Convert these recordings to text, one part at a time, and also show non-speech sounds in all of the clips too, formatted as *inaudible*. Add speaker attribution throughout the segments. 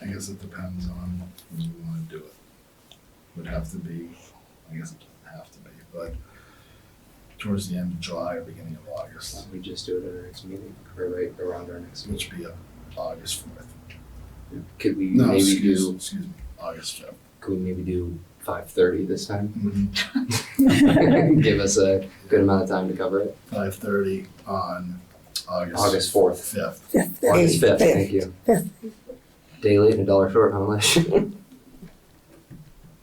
Speaker 1: I guess it depends on when you wanna do it. Would have to be, I guess it doesn't have to be, but towards the end of July or beginning of August,
Speaker 2: We just do it at our next meeting, or right around our next meeting.
Speaker 1: which would be uh, August fourth.
Speaker 2: Could we
Speaker 1: No,
Speaker 2: maybe
Speaker 1: excuse,
Speaker 2: do,
Speaker 1: excuse me, August fifth.
Speaker 2: could we maybe do five thirty this time? *laughs*
Speaker 1: Mhm.
Speaker 2: Give us a good amount of time to cover it.
Speaker 1: Five thirty on August.
Speaker 2: August fourth,
Speaker 1: Fifth.
Speaker 3: Fifth,
Speaker 2: August fifth, thank you.
Speaker 3: Fifth.
Speaker 2: Day late and a dollar short, how much? *laughs*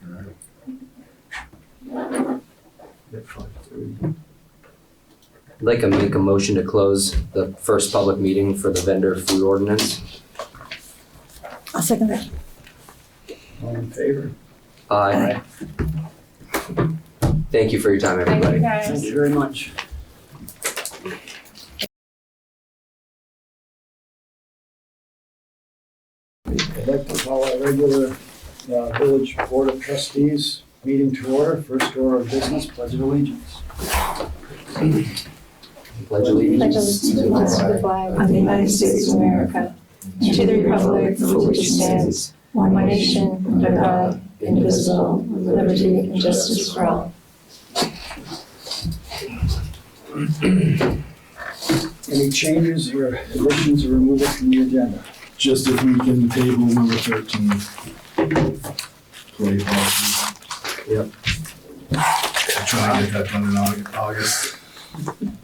Speaker 1: Alright.
Speaker 2: I'd Like to make a motion to close the first public meeting for the vendor food ordinance.
Speaker 3: I'll second that.
Speaker 4: All in favor?
Speaker 2: Aye. Thank you for your time,
Speaker 5: Thank
Speaker 2: everybody.
Speaker 5: you guys.
Speaker 4: Thank you very much. I'd like to call our regular uh, Village Board of Trustees meeting to order. First order of business, pledge of allegiance.
Speaker 2: Pledge
Speaker 5: Pledge
Speaker 2: allegiance.
Speaker 5: allegiance to the flag of the United States of America, and to the republic for which it stands, one nation, under God, indivisible, with liberty and justice for all.
Speaker 4: Any changes or additions or removals from the agenda?
Speaker 1: Just if we can table number thirteen. Play policy.
Speaker 2: Yep.
Speaker 1: I'll Try and get that done in Au- August.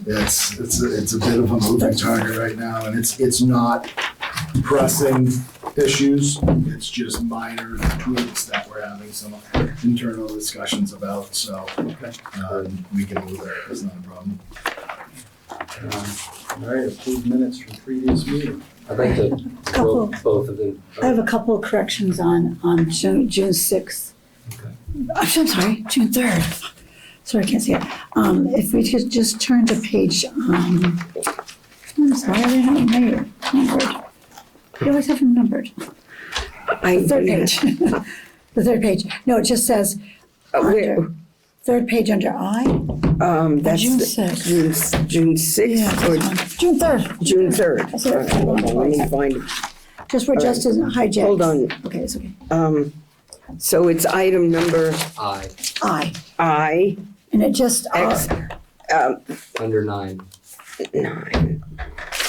Speaker 1: It's, it's, a- it's a bit of a moving target right now and it's, it's not pressing issues. It's just minor tweaks that we're having some internal discussions about, so, um, we can move there. It's not a problem.
Speaker 4: Um, All right, approved minutes from previous meeting.
Speaker 2: I'd like to
Speaker 3: Couple.
Speaker 2: roll both of them.
Speaker 3: I have a couple of corrections on, on June, June sixth.
Speaker 2: Okay.
Speaker 3: I'm so sorry, June third. Sorry, I can't see it. Um, if we could just turn to page, um, I'm sorry, I didn't have it made, numbered. You always have them numbered.
Speaker 6: I,
Speaker 3: Third page. *laughs* The third page. No, it just says,
Speaker 6: Uh, where-
Speaker 3: under, third page under I,
Speaker 6: um, that's
Speaker 3: June
Speaker 6: the-
Speaker 3: sixth.
Speaker 6: June, s- June
Speaker 3: Yeah,
Speaker 6: sixth or
Speaker 3: this one. June third,
Speaker 6: June third.
Speaker 3: I said it.
Speaker 6: Let me find it.
Speaker 3: just where
Speaker 6: All right.
Speaker 3: Justin hijacked.
Speaker 6: Hold on.
Speaker 3: Okay, it's okay.
Speaker 6: Um, so it's item number
Speaker 2: Aye,
Speaker 3: I,
Speaker 6: I,
Speaker 3: and it just, uh,
Speaker 6: X, um,
Speaker 2: under nine.
Speaker 6: nine.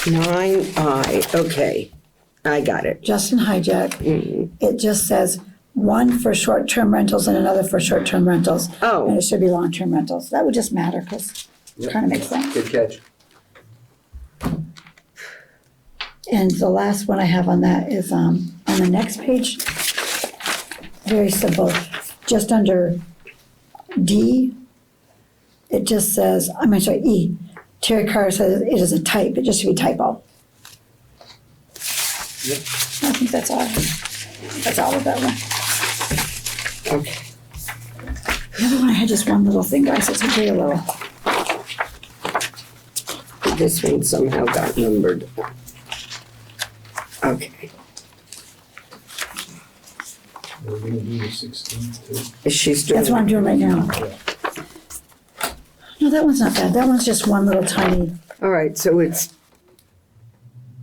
Speaker 6: Nine I, okay, I got it.
Speaker 3: Justin hijacked.
Speaker 6: Mhm.
Speaker 3: it just says one for short-term rentals and another for short-term rentals. And
Speaker 6: Oh,
Speaker 3: it should be long-term rentals. That would just matter because it kind of makes sense.
Speaker 2: Good catch.
Speaker 3: And the last one I have on that is, um, on the next page, very simple, just under D, it just says, I'm sorry, E, Terry Carr says it is a type, it just should be typo.
Speaker 2: Yep.
Speaker 3: I think that's all, that's all of that one.
Speaker 6: okay.
Speaker 3: The other one, I had just one little thing, guys, it's really little.
Speaker 6: This one somehow got numbered. Okay,
Speaker 4: We're gonna do the sixteenth too.
Speaker 6: she's doing.
Speaker 3: That's what I'm doing right now. No, that one's not bad. That one's just one little tiny
Speaker 6: All right, so it's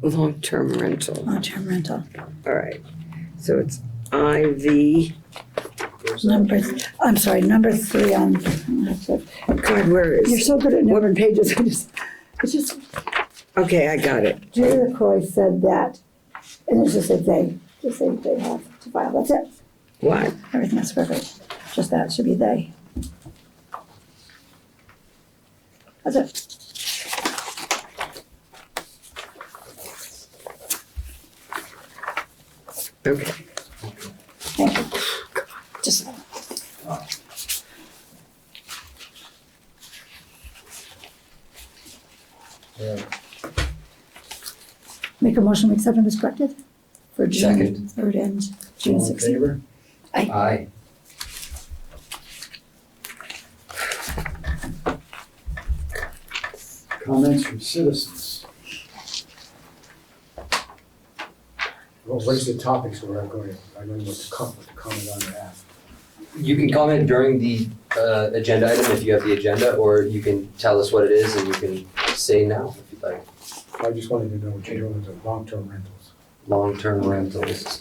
Speaker 6: long-term rental.
Speaker 3: long-term rental.
Speaker 6: All right, so it's IV,
Speaker 3: Number, I'm sorry, number three on, you're
Speaker 6: God, where is,
Speaker 3: so good at numbered pages, *laughs* I just, it's just,
Speaker 6: okay, I got it.
Speaker 3: Julie LaCroy said that. And it's just a they, just say they have to file. That's it.
Speaker 6: What?
Speaker 3: Everything else perfect. Just that should be they. That's it.
Speaker 6: Okay.
Speaker 3: Thank you. Just, make a motion, we accept and is corrected for June
Speaker 2: Second.
Speaker 3: third and June
Speaker 4: All in
Speaker 3: sixteenth.
Speaker 4: favor?
Speaker 2: Aye.
Speaker 4: Comments from citizens.
Speaker 7: Well, what is the topics where I'm going, I know what to com- what to comment on or ask.
Speaker 2: You can comment during the uh, agenda item if you have the agenda, or you can tell us what it is and you can say now if you'd like.
Speaker 7: I just wanted to know what you're doing with the long-term rentals.
Speaker 2: Long-term rentals.